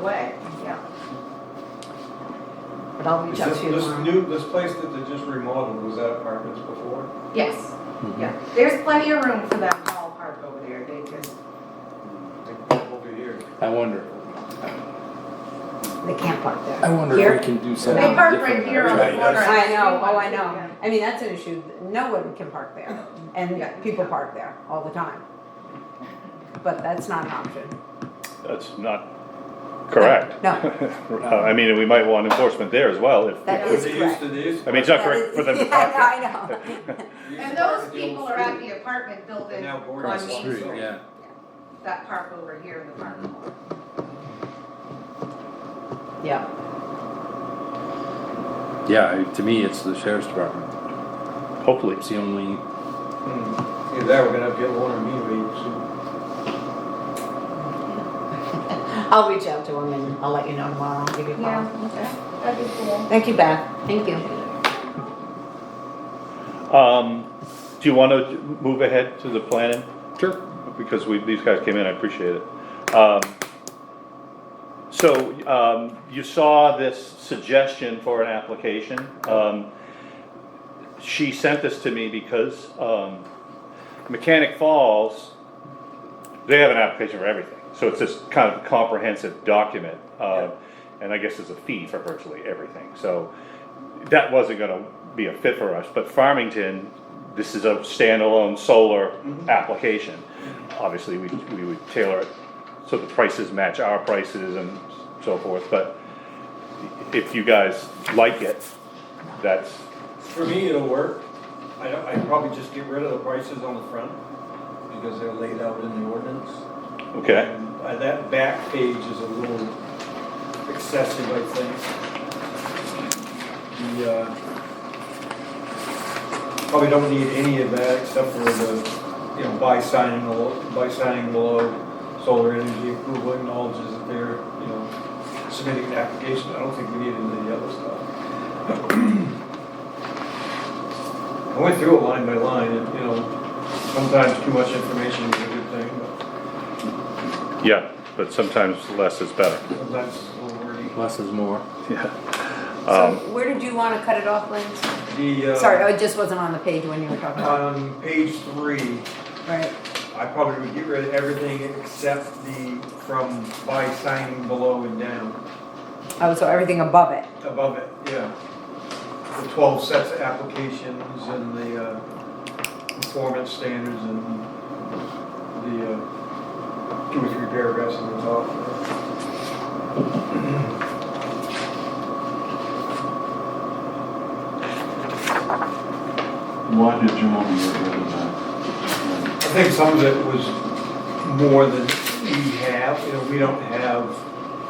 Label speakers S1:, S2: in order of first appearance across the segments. S1: away, yeah. But I'll
S2: Is
S1: reach out
S2: This,
S1: to you
S2: this
S1: tomorrow.
S2: new, this place that they just remodeled, was that apartments before?
S1: Yes, yeah, there's plenty of room for that tall park over there, they just,
S2: Like, Over here.
S3: I wonder,
S1: they can't park
S3: I
S1: there.
S3: wonder
S4: Here?
S3: if we can do
S1: They
S3: something different.
S1: park right here on the
S3: Right.
S1: corner.
S4: I know, oh, I know. I mean, that's an issue. No one can park there.
S1: Yeah.
S4: And people park there all the time. But that's not an option.
S5: That's not correct. Uh,
S4: No.
S5: I mean, we might want enforcement there as well, if,
S4: That
S2: Were
S4: is
S2: they used
S4: correct.
S2: to these?
S5: I mean, it's not correct for them to park
S4: Yeah, I
S5: there.
S4: know.
S2: They used
S1: And
S2: to
S1: those
S2: park the old
S1: people are at
S2: street.
S1: the apartment building
S2: Now
S1: on
S2: board
S1: Main
S2: across the
S1: Street.
S2: street,
S3: yeah.
S1: That park over here in the parking lot.
S4: Yeah.
S6: Yeah, I- to me, it's the sheriff's department.
S5: Hopefully,
S6: It's the only,
S2: Hmm. Either that, we're gonna have to get Warner Mead soon.
S4: I'll reach out to him and I'll let you know tomorrow. I'll give you a call.
S1: okay, that'd be cool.
S4: Thank you, Beth. Thank you.
S5: um, do you wanna move ahead to the planning?
S6: sure,
S5: Because we, these guys came in, I appreciate it. Um, So, um, you saw this suggestion for an application. Um, She sent this to me because, um, Mechanic Falls, they have an application for everything. So it's this kind of comprehensive document, uh, and I guess it's a fee for virtually everything. So that wasn't gonna be a fit for us, but Farmington, this is a standalone solar application. Obviously, we, we would tailor it so the prices match our prices and so forth, but if you guys like it, that's,
S2: For me, it'll work. I don't, I'd probably just get rid of the prices on the front, because they're laid out in the ordinance.
S5: okay,
S2: And, uh, That back page is a little excessive, I think. The, uh, probably don't need any of that except for the, you know, by signing below, by signing below, solar energy approval acknowledges that they're, you know, submitting an application. I don't think we need any of the other stuff. I went through it line by line and, you know, sometimes too much information is a good thing, but.
S5: yeah, but sometimes less is better,
S2: Oh, That's already.
S6: less is more.
S5: yeah.
S4: So
S5: Um,
S4: where did you want to cut it off, Lynn?
S2: The,
S4: Sorry,
S2: uh,
S4: oh, it just wasn't on the page when you were talking about
S2: on page three,
S4: it. Right.
S2: I probably would get rid of everything except the from by signing below and down.
S4: Oh, so everything above it.
S2: Above it, yeah. The twelve sets of applications and the, uh, performance standards and the, uh, two or three paragraphs on the top.
S7: Why did you want to get rid of that?
S2: I think some of it was more than we have, you know, we don't have,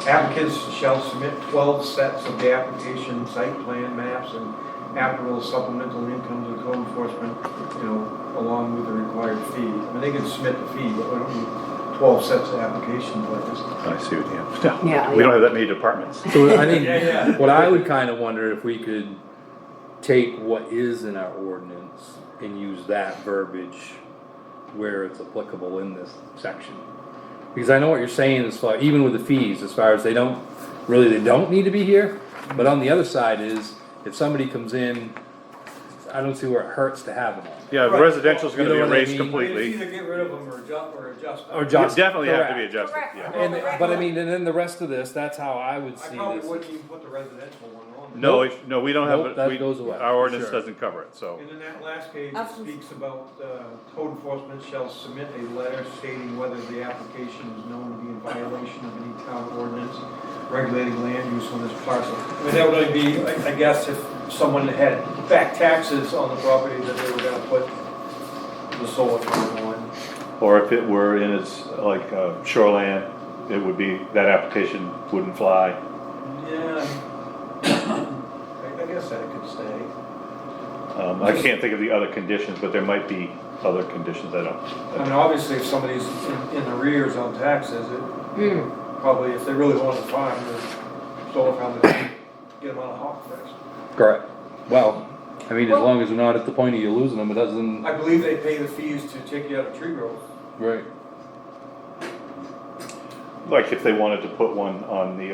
S2: applicants shall submit twelve sets of the application, site plan maps, and applicable supplemental income to the code enforcement, you know, along with the required fee. I mean, they can submit the fee, but we don't need twelve sets of applications like this.
S5: I see what you have,
S4: Yeah,
S5: no, we don't have that many departments,
S6: So I
S2: Yeah, yeah.
S6: think, what I would kinda wonder if we could take what is in our ordinance and use that verbiage where it's applicable in this section. Because I know what you're saying as far, even with the fees, as far as they don't, really, they don't need to be here. But on the other side is, if somebody comes in, I don't see where it hurts to have them on.
S5: yeah,
S2: Right.
S5: residential's gonna
S6: You
S5: be
S6: know what I
S5: erased
S6: mean?
S5: completely. You
S2: Either get rid of them or adjust, or adjust them.
S6: Or just.
S5: definitely have to be
S6: correct.
S5: adjusted, yeah.
S6: And, but I mean, and then the rest of this, that's how I would
S2: I
S6: see
S2: probably
S6: this.
S2: wouldn't even put the residential one on.
S5: No,
S6: Nope.
S5: if- no, we don't
S6: Nope,
S5: have,
S6: that
S5: it. we,
S6: goes away,
S5: our
S6: for
S5: ordinance
S6: sure.
S5: doesn't cover it, so,
S2: And then that last page
S4: Absolutely.
S2: speaks about, uh, code enforcement shall submit a letter stating whether the application is known to be in violation of any town ordinance regulating land use on this parcel. I mean, that would only be, I I guess, if someone had back taxes on the property that they were gonna put the solar farm on.
S5: or if it were in its, like, uh, shoreline, it would be, that application wouldn't fly.
S2: Yeah. I- I guess that could stay.
S5: Um, I can't think of the other conditions, but there might be other conditions, I
S2: I mean,
S5: don't,
S2: obviously, if somebody's in- in arrears on taxes, it
S4: Mm,
S2: probably, if they really want to farm, they're solar farm, they get them on a hawk first.
S6: Correct. Well, I mean, as
S4: Well-
S6: long as we're not at the point of you losing them, it doesn't.
S2: I believe they pay the fees to take you out of tree growth.
S6: Right.
S5: like if they wanted to put one on the